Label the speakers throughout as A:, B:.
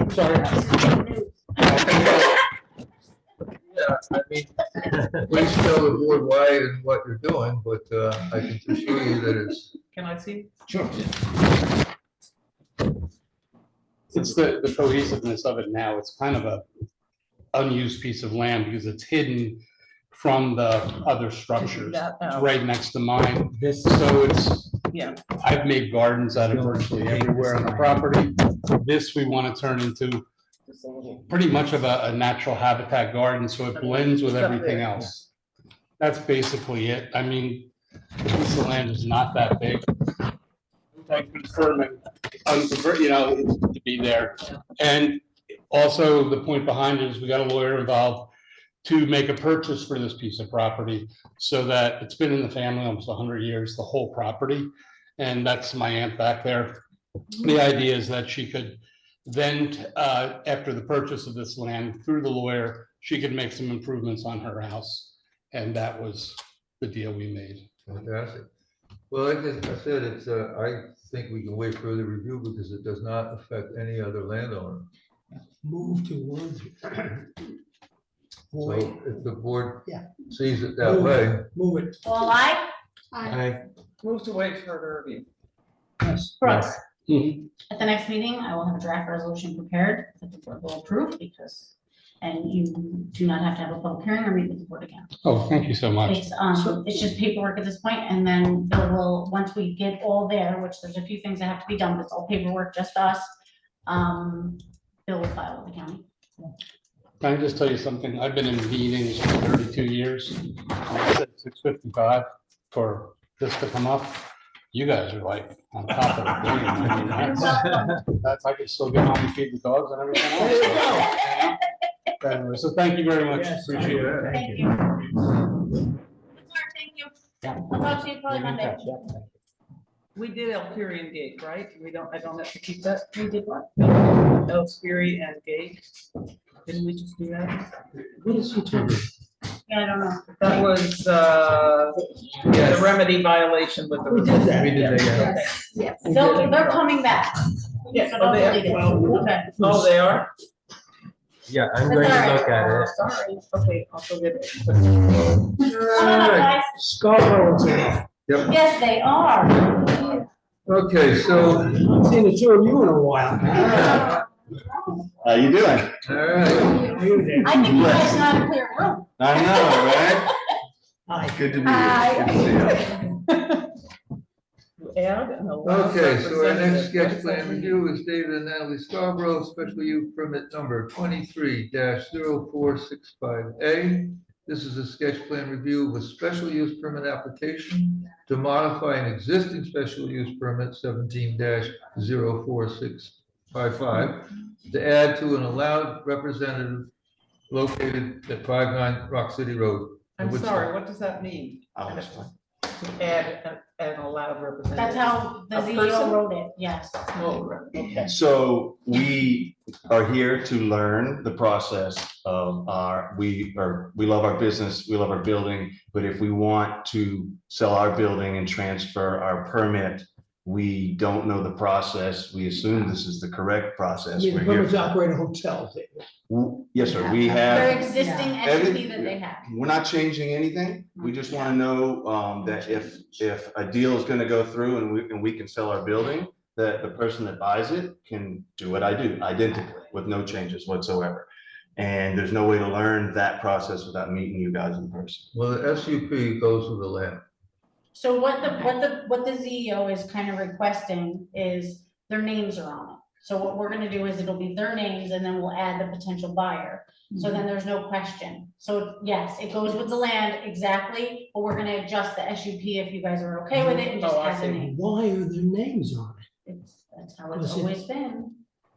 A: I'm sorry.
B: Yeah, I mean, please tell the board why and what you're doing, but uh, I can assure you that it's,
C: Can I see?
A: Sure.
D: It's the, the cohesiveness of it now. It's kind of a unused piece of land because it's hidden from the other structures.
C: That,
D: It's
C: uh,
D: right next to mine.
A: This,
D: So it's,
C: Yeah,
D: I've made gardens out of virtually everywhere on the property. This we want to turn into
C: just a little.
D: pretty much of a, a natural habitat garden, so it blends with everything else. That's basically it. I mean, the piece of land is not that big. Like confirming, unconver- you know, it's to be there. And also, the point behind it is we got a lawyer involved to make a purchase for this piece of property so that it's been in the family almost hundred years, the whole property. And that's my aunt back there. The idea is that she could then, uh, after the purchase of this land through the lawyer, she could make some improvements on her house. And that was the deal we made.
B: Fantastic. Well, like I said, it's, uh, I think we can wait for the review because it does not affect any other landowner.
A: move towards.
B: So if the board
A: Yeah.
B: sees it that way,
A: Move it.
E: All right,
A: I,
C: Move to wait further review.
A: yes.
E: Brooks,
D: Mhm.
E: at the next meeting, I will have a draft resolution prepared that the board will approve because, and you do not have to have a public hearing or meet with the board again.
D: Oh, thank you so much.
E: It's, um, it's just paperwork at this point, and then Bill will, once we get all there, which there's a few things that have to be done, but it's all paperwork, just us. Um, Bill will file with the county.
D: Can I just tell you something? I've been in meetings for thirty-two years. Six fifty-five for this to come up. You guys are like on top of the game. I mean, that's- That's, I could still get home and feed the dogs and everything else.
A: There you
D: go. Anyway, so thank you very much.
A: Yes,
D: Appreciate it.
E: Thank you. Sorry, Thank you. I'll talk to you probably Monday.
C: We did Elperion Gate, right? We don't, I don't have to keep that.
E: We did what?
C: Elspiri and Gate. Didn't we just do that? What is she talking?
E: Yeah, I don't know.
C: That was, uh, the
A: Yes.
C: remedy violation with the.
A: We did that.
B: We did that, yeah.
E: Yes, they're, they're coming back.
C: Yes,
E: So
C: oh,
E: don't
C: they are.
E: delete it.
C: Well,
E: Okay.
C: Oh, they are?
F: Yeah, I'm
E: That's
F: going
E: all
F: to
E: right.
F: look at it.
C: Sorry. Okay, I'll forget it.
E: Come on up, guys.
A: Scarborough's here.
B: yep.
E: Yes, they are.
B: Okay, so,
A: Haven't Seen the two of you in a while.
B: Yeah.
G: How you doing?
B: all right.
A: How are you there?
E: I think you guys know how to clear a room.
G: I know,
A: Hi.
G: right? Good to be
E: Hi.
G: here. Good to see you.
C: Add and allow
B: Okay, so our
C: representative.
B: next sketch plan review is David and Natalie Scarborough, special use permit number twenty-three 465 A. This is a sketch plan review with special use permit application to modify an existing special use permit seventeen 4655 to add to an allowed representative located at 59 Rock City Road.
C: I'm
B: Which-
C: sorry, what does that mean?
G: Oh,
C: And
G: that's
C: if- Add an- an allowed representative.
E: That's how the
C: A person?
E: CEO wrote it, yes.
C: Oh, right. Okay.
G: So we are here to learn the process of our, we are, we love our business, we love our building. But if we want to sell our building and transfer our permit, we don't know the process. We assume this is the correct process.
A: You
G: We're
A: permits
G: here.
A: operate hotels.
G: W- Yes, sir. We
E: Their
G: have,
E: existing entity that they have.
G: we're not changing anything. We just want to know um, that if, if a deal is going to go through and we, and we can sell our building, that the person that buys it can do what I do identically with no changes whatsoever. And there's no way to learn that process without meeting you guys in person.
B: Well, the SUP goes with the land.
E: So what the, what the, what the CEO is kind of requesting is their names are on it. So what we're gonna do is it'll be their names and then we'll add the potential buyer. So then there's no question. So yes, it goes with the land exactly, but we're gonna adjust the SUP if you guys are okay with it and just
C: Oh, I
E: add the
C: see.
E: name.
A: Why are their names on it?
E: It's, that's how it's
A: Was it-
E: always been.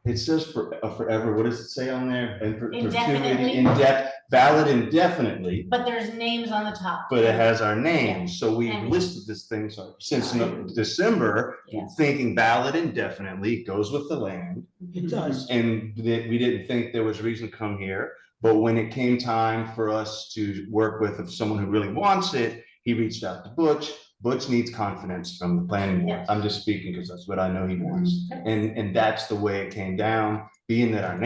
G: It says for, uh, forever, what does it say on there? And per-
E: Indefinitely.
G: perpetuity, indef, valid indefinitely,
E: But there's names on the top.
G: but it has our name. So we
E: And-
G: listed this thing so- since no- December,
E: Yeah.
G: thinking valid indefinitely goes with the land.
A: It does.
G: and that we didn't think there was reason to come here. But when it came time for us to work with someone who really wants it, he reached out to Butch. Butch needs confidence from the planning board.
E: Yes.
G: I'm just speaking because that's what I know he wants. And, and that's the way it came down, being that our